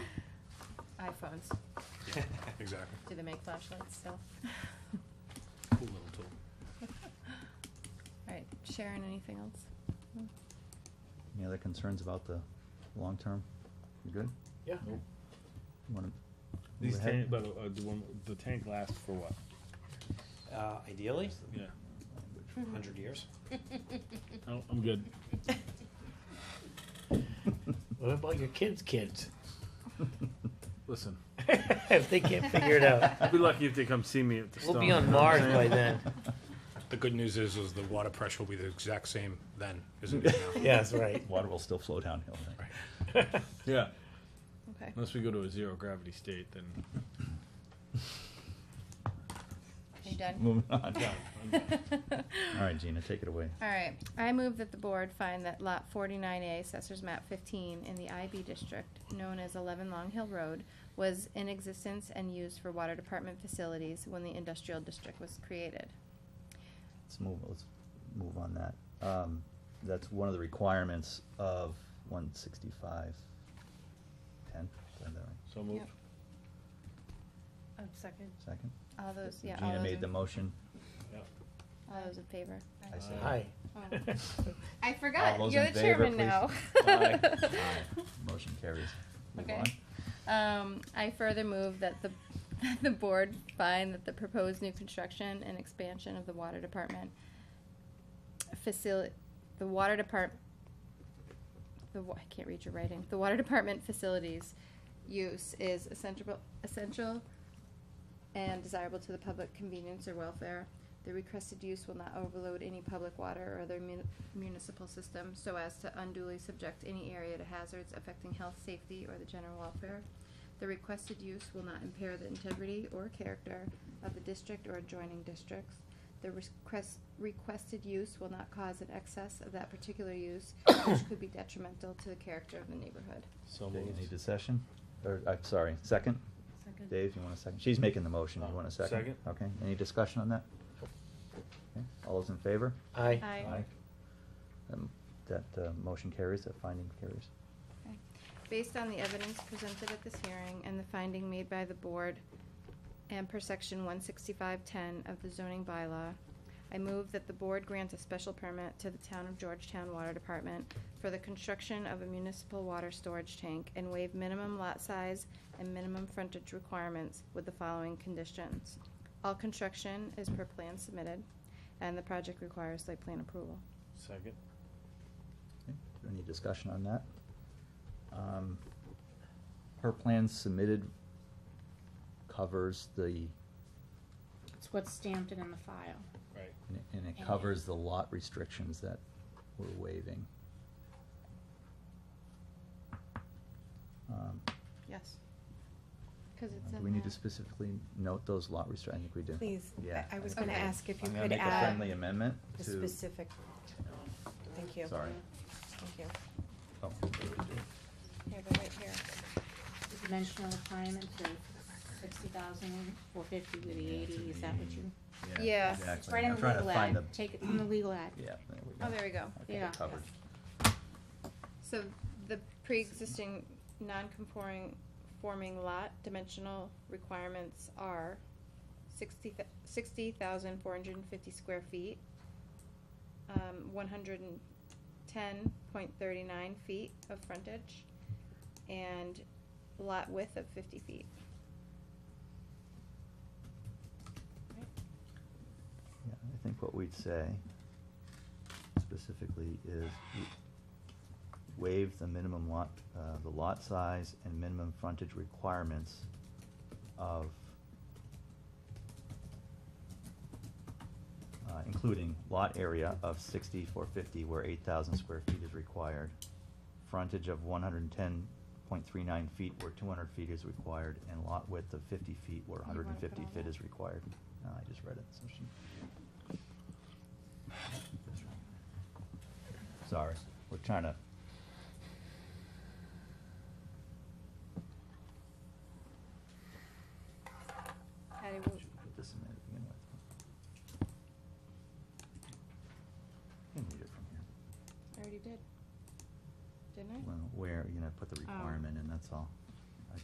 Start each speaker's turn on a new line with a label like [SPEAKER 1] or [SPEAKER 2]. [SPEAKER 1] iPhones.
[SPEAKER 2] Exactly.
[SPEAKER 1] Do they make flashlights still?
[SPEAKER 2] Cool little tool.
[SPEAKER 1] All right, Sharon, anything else? No?
[SPEAKER 3] Any other concerns about the long term? You good?
[SPEAKER 4] Yeah.
[SPEAKER 3] You wanna move
[SPEAKER 5] These tank,
[SPEAKER 3] ahead?
[SPEAKER 5] but uh, the one, the tank lasts for what?
[SPEAKER 4] Uh, ideally,
[SPEAKER 5] Yeah,
[SPEAKER 4] hundred years.
[SPEAKER 5] no, I'm good.
[SPEAKER 4] What about your kids' kids?
[SPEAKER 5] Listen,
[SPEAKER 4] if they can't figure it out,
[SPEAKER 5] I'd be lucky if they come see me at the
[SPEAKER 4] we'll
[SPEAKER 5] stone.
[SPEAKER 4] be on Mars by then.
[SPEAKER 2] The good news is, is the water pressure will be the exact same then, as it is now.
[SPEAKER 4] Yeah, that's right.
[SPEAKER 3] Water will still flow downhill, right?
[SPEAKER 5] Yeah,
[SPEAKER 1] Okay,
[SPEAKER 5] unless we go to a zero gravity state, then
[SPEAKER 1] you done?
[SPEAKER 3] Moving on. All right, Gina, take it away.
[SPEAKER 1] All right, I move that the board find that lot forty-nine A, assessors map fifteen, in the IB district, known as eleven Long Hill Road, was in existence and used for water department facilities when the industrial district was created.
[SPEAKER 3] Let's move, let's move on that. Um, that's one of the requirements of one sixty-five ten, is that right?
[SPEAKER 5] so move.
[SPEAKER 1] Yep.
[SPEAKER 6] A Oh, second.
[SPEAKER 3] Second?
[SPEAKER 1] All those, yeah, all
[SPEAKER 3] Gina
[SPEAKER 1] those
[SPEAKER 3] made the
[SPEAKER 1] in-
[SPEAKER 3] motion.
[SPEAKER 1] All those in favor?
[SPEAKER 3] I say
[SPEAKER 4] Hi.
[SPEAKER 1] Oh. I
[SPEAKER 3] All
[SPEAKER 1] forgot,
[SPEAKER 3] those
[SPEAKER 1] you're
[SPEAKER 3] in
[SPEAKER 1] the
[SPEAKER 3] favor,
[SPEAKER 1] chairman now.
[SPEAKER 3] please. Aye. Aye. Motion carries. Move
[SPEAKER 1] Okay.
[SPEAKER 3] on.
[SPEAKER 1] Um, I further move that the, that the board find that the proposed new construction and expansion of the water department facility, the water depart, the, wa- I can't read your writing, the water department facilities use is essential, essential and desirable to the public convenience or welfare. The requested use will not overload any public water or other mun- municipal system so as to unduly subject any area to hazards affecting health, safety, or the general welfare. The requested use will not impair the integrity or character of the district or adjoining districts. The request, requested use will not cause an excess of that particular use, which could be detrimental to the character of the neighborhood.
[SPEAKER 5] So
[SPEAKER 3] Dave,
[SPEAKER 5] moved.
[SPEAKER 3] you need a session? Or, I'm sorry, second?
[SPEAKER 6] Second.
[SPEAKER 3] Dave, you want a second? She's making the motion, you want a second?
[SPEAKER 5] Second.
[SPEAKER 3] Okay, any discussion on that? Okay, All those in favor?
[SPEAKER 4] Hi.
[SPEAKER 1] Aye.
[SPEAKER 3] Um, That, uh, motion carries, that finding carries.
[SPEAKER 1] Okay. Based on the evidence presented at this hearing and the finding made by the board and per section one sixty-five ten of the zoning bylaw, I move that the board grant a special permit to the town of Georgetown Water Department for the construction of a municipal water storage tank and waive minimum lot size and minimum frontage requirements with the following conditions. All construction is per plan submitted, and the project requires site plan approval.
[SPEAKER 5] Second.
[SPEAKER 3] Okay, Any discussion on that? Um, Her plan submitted covers the,
[SPEAKER 6] It's what's stamped and in the file.
[SPEAKER 5] Right.
[SPEAKER 3] and it- and it covers the lot restrictions that we're waiving. Um,
[SPEAKER 1] Yes. Cause it's in
[SPEAKER 3] Do
[SPEAKER 1] the.
[SPEAKER 3] we need to specifically note those lot restrict, I think we do.
[SPEAKER 7] Please,
[SPEAKER 3] Yeah,
[SPEAKER 7] I I was
[SPEAKER 3] think
[SPEAKER 7] gonna
[SPEAKER 3] we do.
[SPEAKER 7] ask if you
[SPEAKER 3] I'm gonna
[SPEAKER 7] could
[SPEAKER 3] make a
[SPEAKER 7] add
[SPEAKER 3] friendly amendment
[SPEAKER 7] the
[SPEAKER 3] to,
[SPEAKER 7] specific, thank you.
[SPEAKER 3] sorry.
[SPEAKER 7] Thank you.
[SPEAKER 3] Oh,
[SPEAKER 1] Here, but right here.
[SPEAKER 6] The Dimensional requirement for sixty thousand, four fifty with the eighty, is that what you?
[SPEAKER 1] Yeah.
[SPEAKER 3] exactly.
[SPEAKER 6] It's right in
[SPEAKER 3] I'm
[SPEAKER 6] the
[SPEAKER 3] trying to
[SPEAKER 6] legal
[SPEAKER 3] find
[SPEAKER 6] ad,
[SPEAKER 3] the-
[SPEAKER 6] take it from the legal ad.
[SPEAKER 3] Yeah, there we go.
[SPEAKER 1] Oh, there we go.
[SPEAKER 3] Okay,
[SPEAKER 6] Yeah.
[SPEAKER 3] Covered.
[SPEAKER 1] So the pre-existing non-conforming forming lot dimensional requirements are sixty thousand four hundred and fifty square feet, um, one hundred and ten point thirty-nine feet of frontage, and lot width of fifty feet.
[SPEAKER 3] Yeah, I think what we'd say specifically is w- waive the minimum lot, uh, the lot size and minimum frontage requirements of, uh, including lot area of sixty four fifty where eight thousand square feet is required, frontage of one hundred and ten point three nine feet where two hundred feet is required, and lot width of fifty feet where
[SPEAKER 1] You wanna
[SPEAKER 3] hundred and fifty
[SPEAKER 1] put all
[SPEAKER 3] feet
[SPEAKER 1] that?
[SPEAKER 3] is required. No, I just read it, so she. Sorry, we're trying to.
[SPEAKER 1] Patty,
[SPEAKER 3] should
[SPEAKER 1] what-
[SPEAKER 3] we Put this in there to begin with. You can read it from here.
[SPEAKER 1] I already did. Didn't I?
[SPEAKER 3] Well, where, you know, put the
[SPEAKER 1] Oh.
[SPEAKER 3] requirement in, that's all.